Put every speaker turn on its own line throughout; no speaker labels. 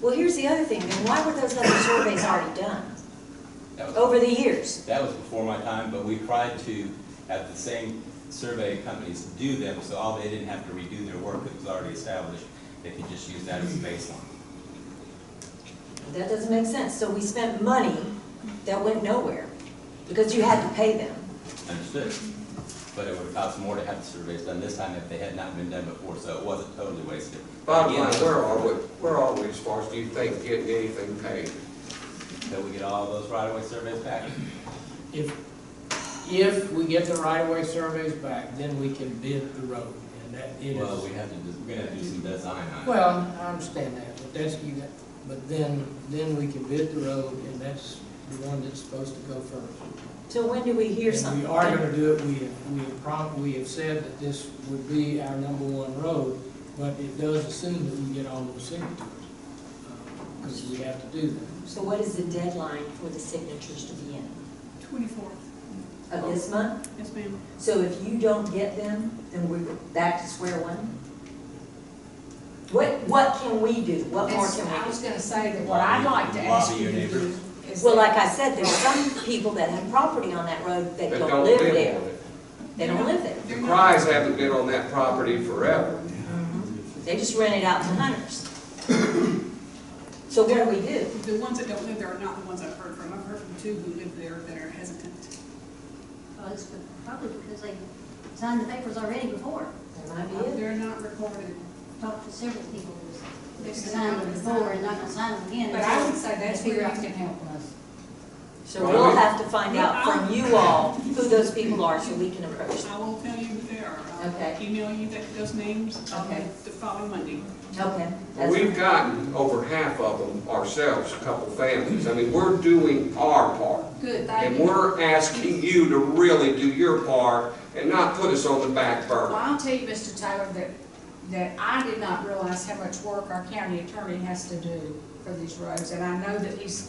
Well, here's the other thing, then why were those other surveys already done
That was,
over the years?
that was before my time, but we tried to have the same survey companies do them, so all they didn't have to redo their work, it was already established. They could just use that as a baseline.
That doesn't make sense, so we spent money that went nowhere, because you had to pay them.
Understood. But it would have cost more to have the surveys done this time if they had not been done before, so it wasn't totally wasted.
Bottom line,
Again,
where are we, where are we as far as do you think getting anything paid?
Till we get all those right-of-way surveys back.
If, if we get the right-of-way surveys back, then we can bid the road, and that it
Well, we
is.
have to, just- we're gonna have to do some design on it.
Well, I understand that, but that's, you got, but then, then we can bid the road, and that's the one that's supposed to go first.
So when do we hear
And
something?
we are gonna do it, we have, we have prom, we have said that this would be our number one road, but it does assume that we get all those signatures, because we have to do that.
So what is the deadline for the signatures to be in?
Twenty-fourth,
Of this month?
yes ma'am.
So if you don't get them, then we're back to square one? What, what can we do? What more
That's-
can
I
we
was
do?
gonna say that what I'd like to ask
Lobby
you
your
to do
neighbors.
is.
Well,
that-
like I said, there's some people that have property on that road that
That
don't live
on
there.
it.
They don't live there.
The Prys haven't been on that property forever.
They just rent it out to hunters. So what do we do?
The ones that don't live there are not the ones I've heard from. I've heard from two who live there that are hesitant.
Well, it's probably because they signed the papers already before.
That might be it.
They're not recorded.
Talked to several people who
They
was
said
signed
they
them
were
before and
signed.
not gonna sign them again.
But I would say that's
Figure
where
out
you
can
can
help
help
us.
So we'll have to find out from you all who those people are so we can approach them.
I will tell you who they are. I'll
Okay.
Email you that, those names, um,
Okay.
the following Monday.
Okay.
Well,
that's-
We've gotten over half of them ourselves, a couple families. I mean, we're doing our part.
Good, thank
And
you.
we're asking you to really do your part and not put us on the back
Well,
burner.
I'll tell you, Mr. Taylor, that, that I did not realize how much work our county attorney has to do for these roads. And I know that he's,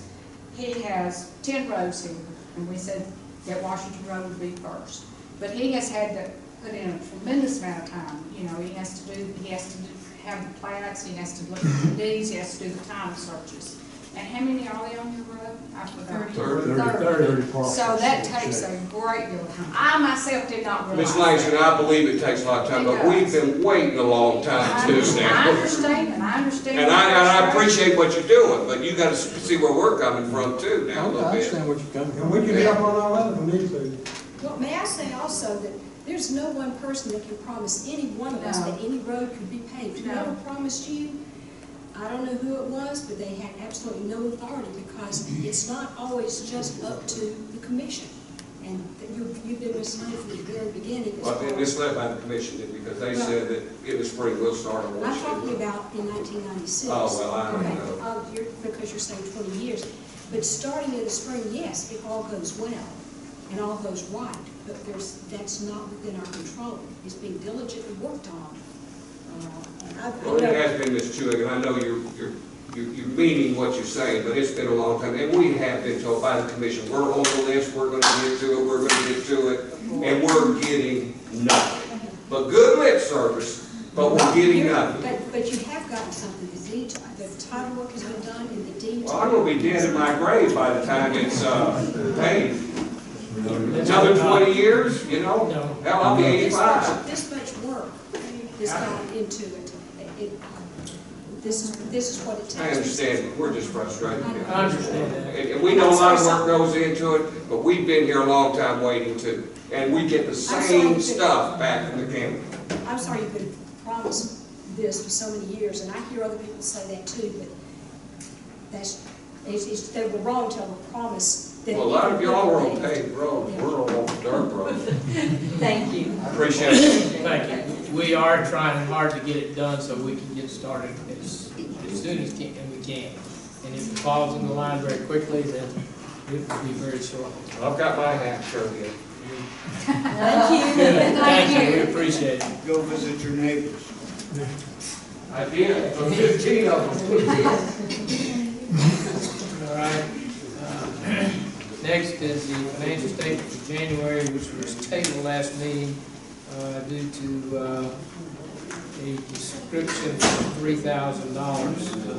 he has ten roads here, and we said that Washington Road would be first. But he has had to put in a tremendous amount of time, you know, he has to do, he has to do- have the plats, he has to look at the deeds, he has to do the title searches. And how many are they on your road? I forgot.
Thirty.
Thirty. So that takes a great deal of time. I myself did not realize.
Ms. Langston,
that.
I believe it takes a lot of time, but we've been waiting a long time too
I
now.
understand, and I understand.
And I,
your
and I
frustration.
appreciate what you're doing, but you gotta see where we're coming from too now a little bit.
what you're coming
And we can help on our other if we need to.
Well, may I say also that there's no one person that can promise any one of us
No.
that any road could be paved.
No.
Whoever promised you, I don't know who it was, but they had absolutely no authority because it's not always just up to the commission. And you've, you've been misled from the very beginning. as
Well,
far
and
as-
it's led by the commission then, because they said that in the spring we'll start a
I'm talking
watershed.
about in nineteen ninety-six.
Oh, well, I don't
Okay,
know.
oh, you're, because you're saying twenty years, but starting in the spring, yes, if all goes well and all goes right, but there's, that's not within our control. It's being diligently worked on. Uh, and I've-
Well, it
I know-
has been, Ms. Chuig, and I know you're, you're, you're you're meaning what you're saying, but it's been a long time. And we have been told by the commission, we're on the list, we're gonna get to it, we're gonna get to it, and we're getting nothing. But good lip service, but we're getting nothing.
But, but you have gotten something, the deed, the title work has been done and the deed.
Well, I'm gonna be dead in my grave by the time it's, uh, paid. Another twenty years, you know?
No.
Hell, I'll be
This
eighty-five.
much, this much work is gone into it. It- This is, this is what it takes.
I understand, but we're just frustrated.
I know.
I understand that.
And, and we know a lot of work goes into it, but we've been here a long time waiting too. And we get the
sorry,
same
but-
stuff back from the county.
I'm sorry you've been promised this for so many years, and I hear other people say that too, but that's, it's, it's, they were wrong to have promised that.
Well, a lot of y'all are on paved roads, we're on dirt roads.
Thank you.
Appreciate it.
Thank you. We are trying hard to get it done so we can get started as, as soon as can, and we can. And if it falls in the line very quickly, then it will be very short.
I've got my hat showed yet.
Thank you.
Thank you, we appreciate it.
Go visit your neighbors.
I did, for fifteen of them.
All right. Uh, Next is the financial statement for January, which was tabled last meeting uh, due to uh, a description of three thousand dollars.